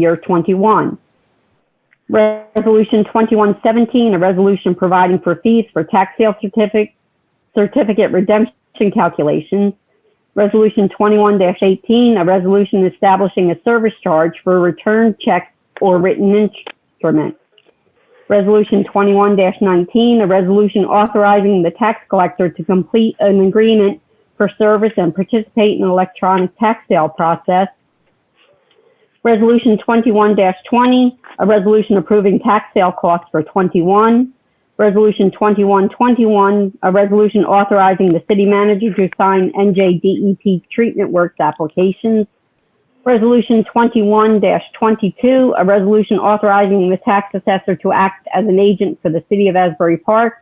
year 21. Resolution 2117, a resolution providing for fees for tax sale certificate, certificate redemption calculations. Resolution 21-18, a resolution establishing a service charge for return checks or written instrument. Resolution 21-19, a resolution authorizing the tax collector to complete an agreement for service and participate in electronic tax sale process. Resolution 21-20, a resolution approving tax sale costs for 21. Resolution 2121, a resolution authorizing the city manager to sign NJDEP E treatment works applications. Resolution 21-22, a resolution authorizing the tax assessor to act as an agent for the city of Asbury Park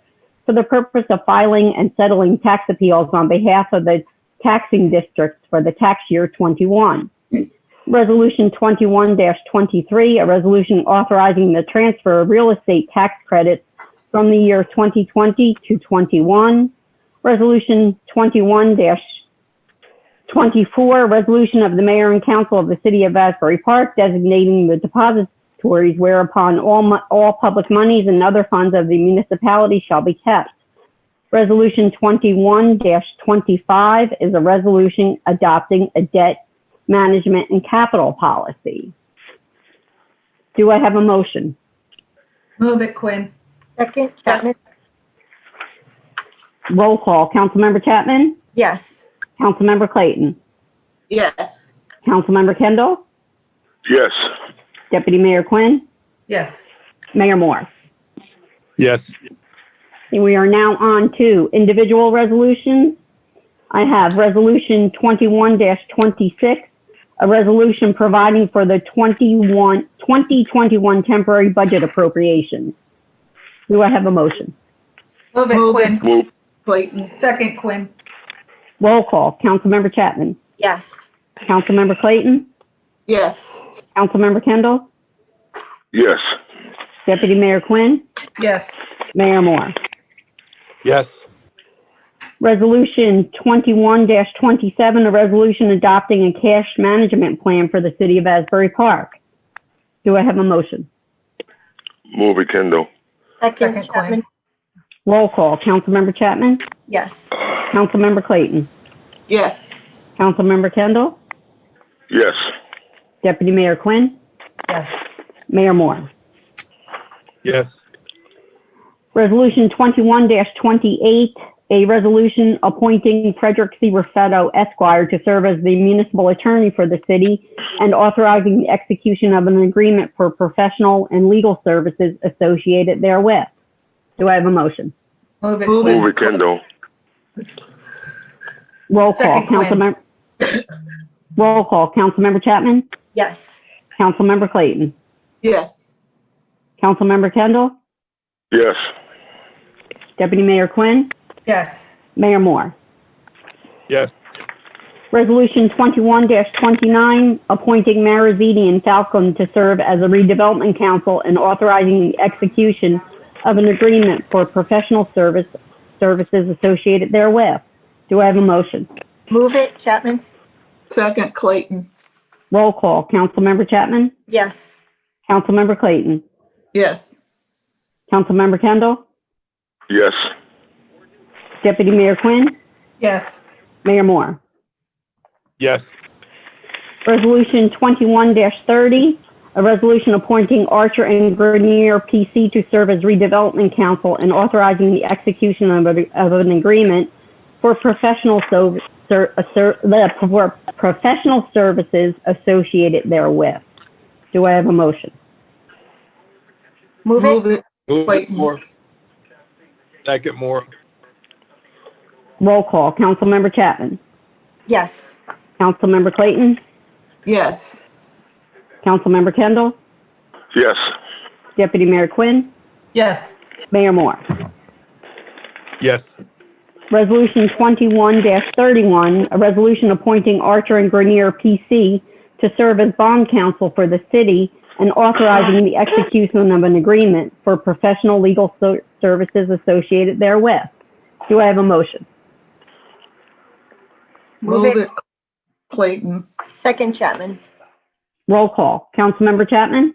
for the purpose of filing and settling tax appeals on behalf of the taxing districts for the tax year 21. Resolution 21-23, a resolution authorizing the transfer of real estate tax credits from the year 2020 to 21. Resolution 21-24, resolution of the mayor and council of the city of Asbury Park designating the depositories whereupon all, mo- all public monies and other funds of the municipality shall be kept. Resolution 21-25 is a resolution adopting a debt management and capital policy. Do I have a motion? Move it Quinn. Second, Chapman? Roll call. Councilmember Chapman? Yes. Councilmember Clayton? Yes. Councilmember Kendall? Yes. Deputy Mayor Quinn? Yes. Mayor Moore? Yes. And we are now on to individual resolutions. I have Resolution 21-26, a resolution providing for the 21, 2021 temporary budget appropriations. Do I have a motion? Move it Move Quinn. it. Move. Clayton. Second Quinn. Roll call. Councilmember Chapman? Yes. Councilmember Clayton? Yes. Councilmember Kendall? Yes. Deputy Mayor Quinn? Yes. Mayor Moore? Yes. Resolution 21-27, a resolution adopting a cash management plan for the city of Asbury Park. Do I have a motion? Move it, Kendall. Second, Second, Quinn. Chapman? Roll call. Councilmember Chapman? Yes. Councilmember Clayton? Yes. Councilmember Kendall? Yes. Deputy Mayor Quinn? Yes. Mayor Moore? Yes. Resolution 21-28, a resolution appointing Frederick C. Raffetto Esquire to serve as the municipal attorney for the city and authorizing the execution of an agreement for professional and legal services associated therewith. Do I have a motion? Move it Move it. Move Quinn. it, Kendall. Roll call, Second, Quinn. Councilmember. Roll call, Councilmember Chapman, Yes. Councilmember Clayton, Yes. Councilmember Kendall, Yes. Deputy Mayor Quinn, Yes. Mayor Moore. Yes. Resolution 21-29, appointing Mara Zedi and Falcon to serve as a redevelopment council and authorizing the execution of an agreement for professional service, services associated therewith. Do I have a motion? Move it, Chapman? Second Clayton. Roll call. Councilmember Chapman? Yes. Councilmember Clayton? Yes. Councilmember Kendall? Yes. Deputy Mayor Quinn? Yes. Mayor Moore? Yes. Resolution 21-30, a resolution appointing Archer and Grenier PC to serve as redevelopment council and authorizing the execution of a- of an agreement for professional so- ser- uh, ser- the- for professional services associated therewith. Do I have a motion? Move it? Move it. Move it Clayton. more. Second more. Roll call. Councilmember Chapman. Yes. Councilmember Clayton. Yes. Councilmember Kendall. Yes. Deputy Mayor Quinn. Yes. Mayor Moore. Yes. Resolution 21-31, a resolution appointing Archer and Grenier PC to serve as bond counsel for the city and authorizing the execution of an agreement for professional legal so- services associated therewith. Do I have a motion? Move Move it? it. Clayton. Second, Chapman? Roll call. Councilmember Chapman?